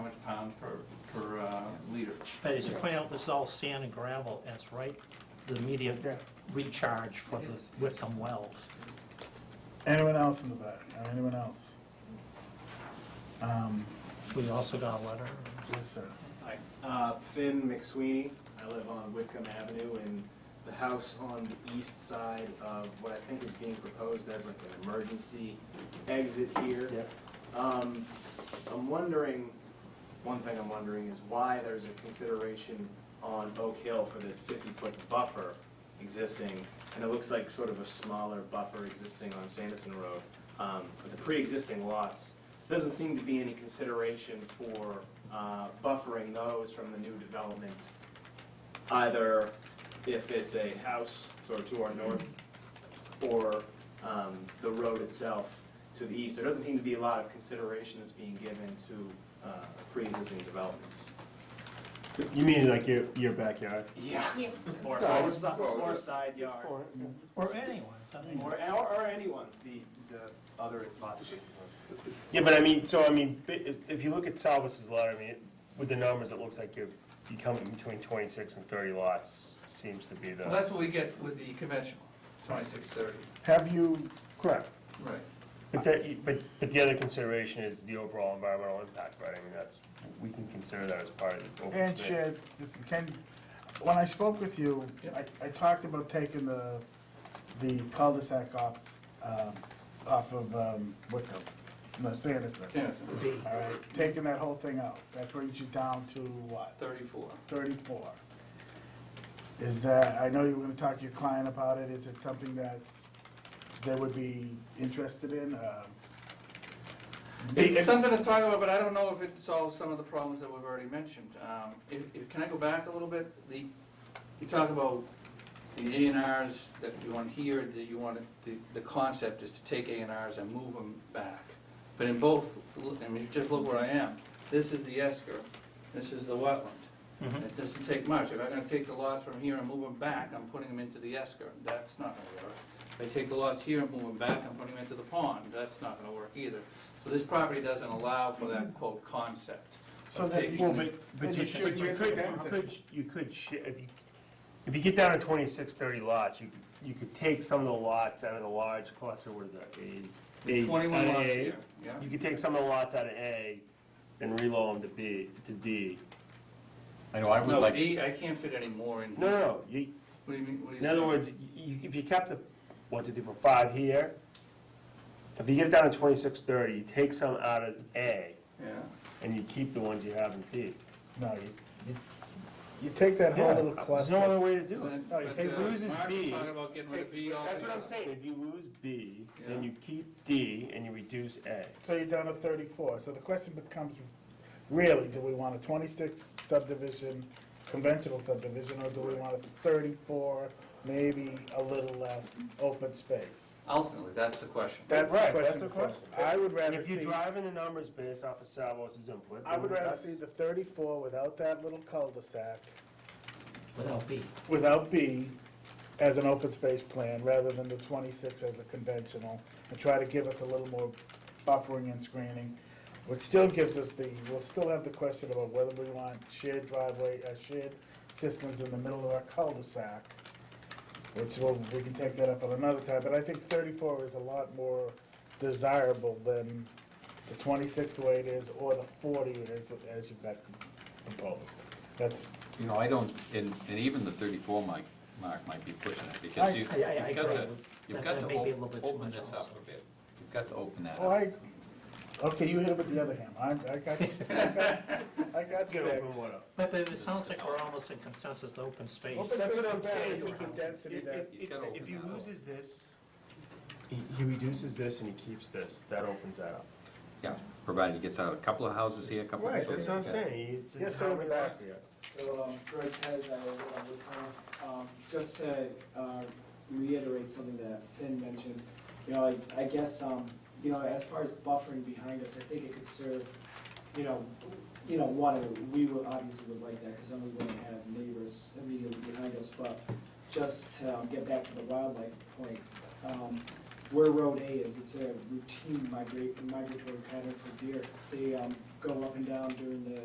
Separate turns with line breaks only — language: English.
But as you point out, this is all sand and gravel, and it's right, the immediate recharge for the Wickham wells.
Anyone else in the back, or anyone else? Um,
We also got a letter.
yes, sir.
Hi, uh, Finn McSweeney. I live on Whitcomb Avenue in the house on the east side of what I think is being proposed as like an emergency exit here. Um, I'm wondering, one thing I'm wondering is why there's a consideration on Oak Hill for this 50-foot buffer existing, and it looks like sort of a smaller buffer existing on Sanderson Road. Um, But the pre-existing lots, doesn't seem to be any consideration for uh, buffering those from the new development, either if it's a house sort of to our north or um, the road itself to the east. There doesn't seem to be a lot of consideration that's being given to uh, pre-existing developments.
You mean like your, your backyard?
Yeah.
Yeah.
Or
Yeah.
side, or side yard, or,
Or anyone, doesn't matter.
or or anyone's, the, the other lots.
Yeah, but I mean, so I mean, bi- if if you look at Salvis's letter, I mean, with the numbers, it looks like you're, you come in between twenty-six and thirty lots, seems to be
Well,
the.
that's what we get with the conventional, twenty-six thirty.
Have you,
Correct.
Right.
But that, you- but, but the other consideration is the overall environmental impact, right? I mean, that's, we can consider that as part of the open
and
space.
shared, system, can, when I spoke with you,
Yeah.
I, I talked about taking the, the cul-de-sac off, um, off of, um, Wickham, no, Sanderson.
Tennyson,
All right, taking that whole thing out, that brings you down to what?
thirty-four.
34. Is that, I know you were gonna talk to your client about it, is it something that's, they would be interested in? Um,
It's something to talk about, but I don't know if it solves some of the problems that we've already mentioned. Um, if- if- Can I go back a little bit? The, you talk about the A and Rs that you want here, that you want, the, the concept is to take A and Rs and move them back. But in both, look, I mean, just look where I am. This is the esker, this is the wetland.
Mhm.
It doesn't take much. If I'm gonna take the lots from here and move them back, I'm putting them into the esker. That's not gonna work. If I take the lots here and move them back, I'm putting them into the pond. That's not gonna work either. So this property doesn't allow for that quote concept.
So
of
that
taking-
Well, but,
But
but you
you
should,
should-
you could, you could, you could, shi- if you, if you get down to twenty-six, thirty lots, you, could- you could take some of the lots out of the large cluster, what is that, A? A- out
Twenty-one
of
lots
A.
here, yeah.
You could take some of the lots out of A and reload them to B, to D.
I know, I would
No,
like,
D, I can't fit any more in
No,
here.
no, no, you,
What do you mean, what do you
in other
say?
words, you, if you kept the, one, two, three, four, five here, if you get down to twenty-six, thirty, you take some out of A
Yeah.
and you keep the ones you have in D.
No, you, you, you take that whole
Yeah,
little
There's no other
cluster.
way to do
But-
it.
No, you
but,
take
uh,
loses
Mark was
B.
talking about getting rid of B
That's what
altogether.
I'm saying, if you lose B, then
Yeah.
you keep D and you reduce A.
So you're down to 34, so the question becomes, really, do we want a 26 subdivision, conventional subdivision, or do we want a 34, maybe a little less open space?
Ultimately, that's the question.
That's the
Right,
question.
that's the
for us.
question.
I would rather
If
see.
you're driving the numbers based off of Salvos's input.
I would
then
rather
that's-
see the thirty-four without that little cul-de-sac,
without B.
without B, as an open space plan, rather than the twenty-six as a conventional, and try to give us a little more buffering and screening, which still gives us the, we'll still have the question about whether we want shared driveway, uh, shared systems in the middle of our cul-de-sac, which will, we can take that up at another time, but I think thirty-four is a lot more desirable than the twenty-six the way it is, or the forty it is, as you've got proposed. That's,
you know, I don't, and, and even the thirty-four mic, mark might be pushing it,
I-
because you,
I- I- I
you've got
agree
to,
with-
you've
that-
got
that
to
may be a little
op-
bit too
open
much
this
also.
up a bit. You've got to open that
Oh,
up.
I, okay, you hit it with the other hand. I, I got, I got- I got
Get
six.
open one up.
But but it sounds like we're almost in consensus, the open space.
Open
That's what
space
I'm
is bad,
saying.
it's just the density
If,
that-
if,
He's
if
gotta
if
open
he
that up.
loses this, he, he reduces this and he keeps this, that opens that up.
Yeah, provided it gets out a couple of houses here, a couple of. houses there.
It's
Yes, sir, in the back.
So, um, Greg Pez, I was on with Tom. Um, just to, uh, reiterate something that Finn mentioned, you know, I, I guess, um, you know, as far as buffering behind us, I think it could serve, you know, you know, one, we would, obviously would like that, because then we wouldn't have neighbors immediately behind us, but just to um, get back to the wildlife point, um, where Road A is, it's a routine migrate, migratory pattern for deer. They, um, go up and down during the